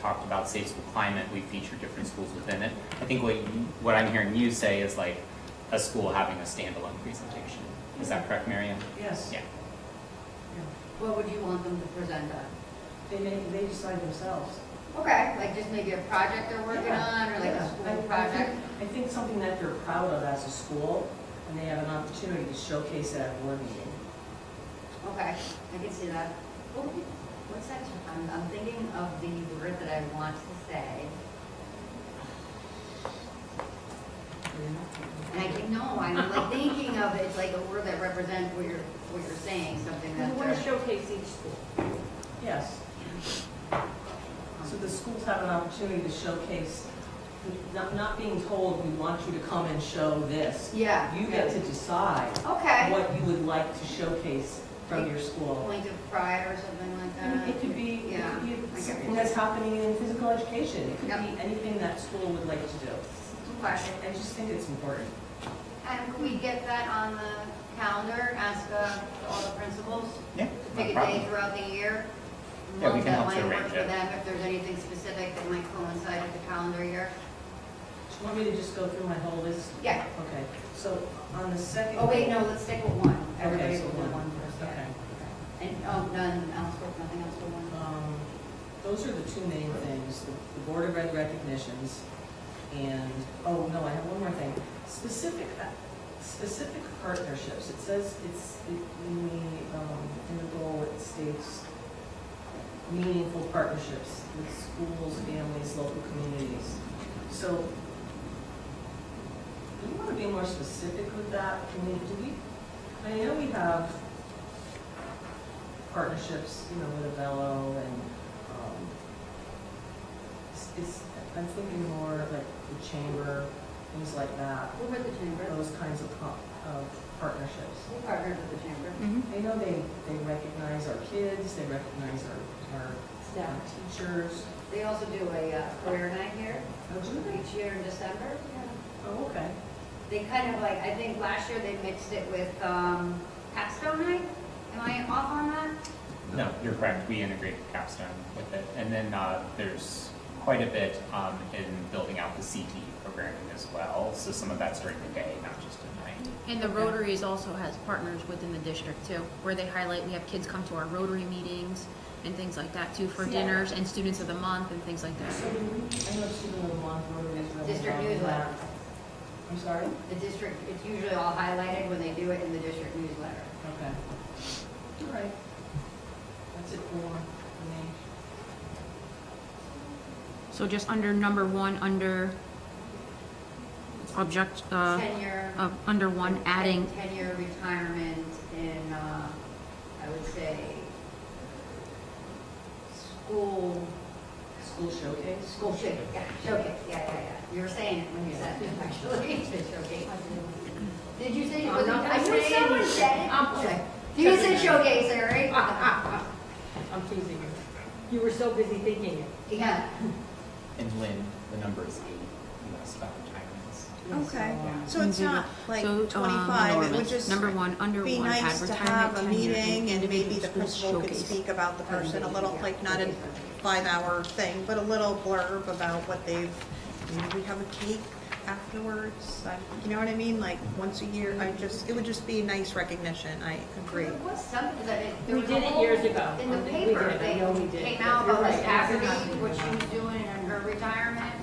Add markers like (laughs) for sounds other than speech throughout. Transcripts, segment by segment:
talked about safe school climate, we feature different schools within it. I think what, you- what I'm hearing you say is like a school having a standalone presentation. Is that correct, Mary Ann? Yes, Yeah. What would you want them to present on? they make, they decide themselves. Okay, like just maybe a project they're working Yeah, on, or like yeah. I- a I school think- project? I think something that they're proud of as a school, and they have an opportunity to showcase it at a board meeting. Okay, I can see that. What would you- What's that, I'm, I'm thinking of the word that I want to say, and I can, no, I'm (laughs) like thinking of, it's like a word that represents what you're, what you're saying, something We that. want to showcase each school. Yes, Uh-huh. so the schools have an opportunity to showcase, not, not being told, we want you to come and show this. Yeah. You get to decide Okay, what you would like to showcase from your school. point of pride or something like that? And It could be, it Yeah. could be I get something it. that's happening in physical education, it could Yep. be anything that school would like to do. Okay. I I just think it's important. And can we get that on the calendar, ask uh, all the principals? Yeah, Pick no a day problem. throughout the year? Yeah, we Month can help to That might work arrange for it. them, if there's anything specific that might coincide with the calendar year? Do you want me to just go through my whole list? Yeah. Okay, so on the second. Oh, wait, no, let's stick with one. Everybody so will do one. one first, Okay. yeah. And, oh, none else, work, nothing else for one? Um, Those are the two main things, the the Board of Ed recognitions, and, oh, no, I have one more thing. Specific, uh, specific partnerships, it says, it's, it- in the, um, in the goal, it states meaningful partnerships with schools, families, local communities. So, do you want to be more specific with that? I mean, do we, I know we have partnerships, you know, with Avello and, um, it's- it's, I'm thinking more like the chamber, things like that, Who were the chamber? those kinds of, co- of partnerships. Who partnered with the chamber? I know they, they recognize our kids, they recognize our, our our Staff. teachers. They also do a uh, career night here, Oh, do each year in December. Yeah. Oh, okay. they kind of like, I think last year they mixed it with um, Capstone Night. Am I off on that? No, you're correct, we integrate capstone with it. And then uh, there's quite a bit um, in building out the CTE programming as well. So some of that's during the day, not just at night. And the Rotaries also has partners within the district too, where they highlight, we have kids come to our Rotary meetings and things like that too for Yeah. dinners and Students of the Month and things like that. So, do we- I know Stephen Lamont Rotary is really. District involved in newsletter. that. I'm sorry? The district, it's usually all highlighted when they do it in the district newsletter. Okay. All right. That's it for me. So just under number one, under object, uh, Tenure. of, under one, adding, Tenure retirement in, uh, I would say, school, School showcase? school showcase, yeah, showcase, yeah, yeah, yeah. You were saying it when you said it, (laughs) actually, the showcase. Did you say, was it, I knew someone said it. Okay. You said showcase, Eric. I'm teasing you. You were so busy thinking it. Yeah. And Lynn, the number is eight, you asked about retirements. Okay, Um, so it's not like so, um, 25, it would Norman, just number one, under be one, nice to have advertisement, a tenure, and meeting and maybe individual the schools principal could showcase. speak about the person a little, like not a five-hour thing, but a little blurb about what they've, maybe we have a cake afterwards, I- you know what I mean? Like, once a year, I just, it would just be nice recognition, I agree. There was something that it- there We was a did it whole- years ago. In the We did it. paper, I they know we did. came out You're about right. the Aberdeen, It's not- what she was doing in her retirement.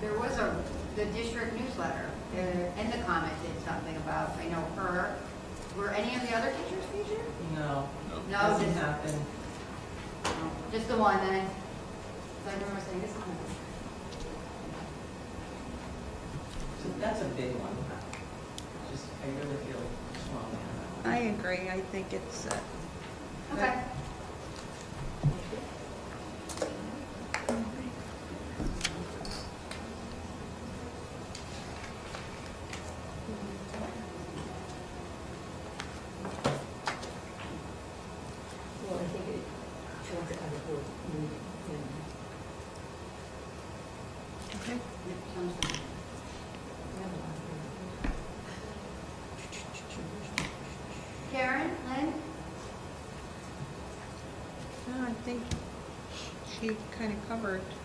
There was a, the district newsletter, uh, and the comment did something about, I know her. Were any of the other teachers featured? No, No, doesn't just, happen. just the one then. So I remember saying this one. So that's a big one. Just, I really feel strongly on that. I agree, I think it's, uh, Okay. Well, I think it shows that I'm for moving. okay. Yep, sounds good. Karen, Lynn? No, I think she kind of covered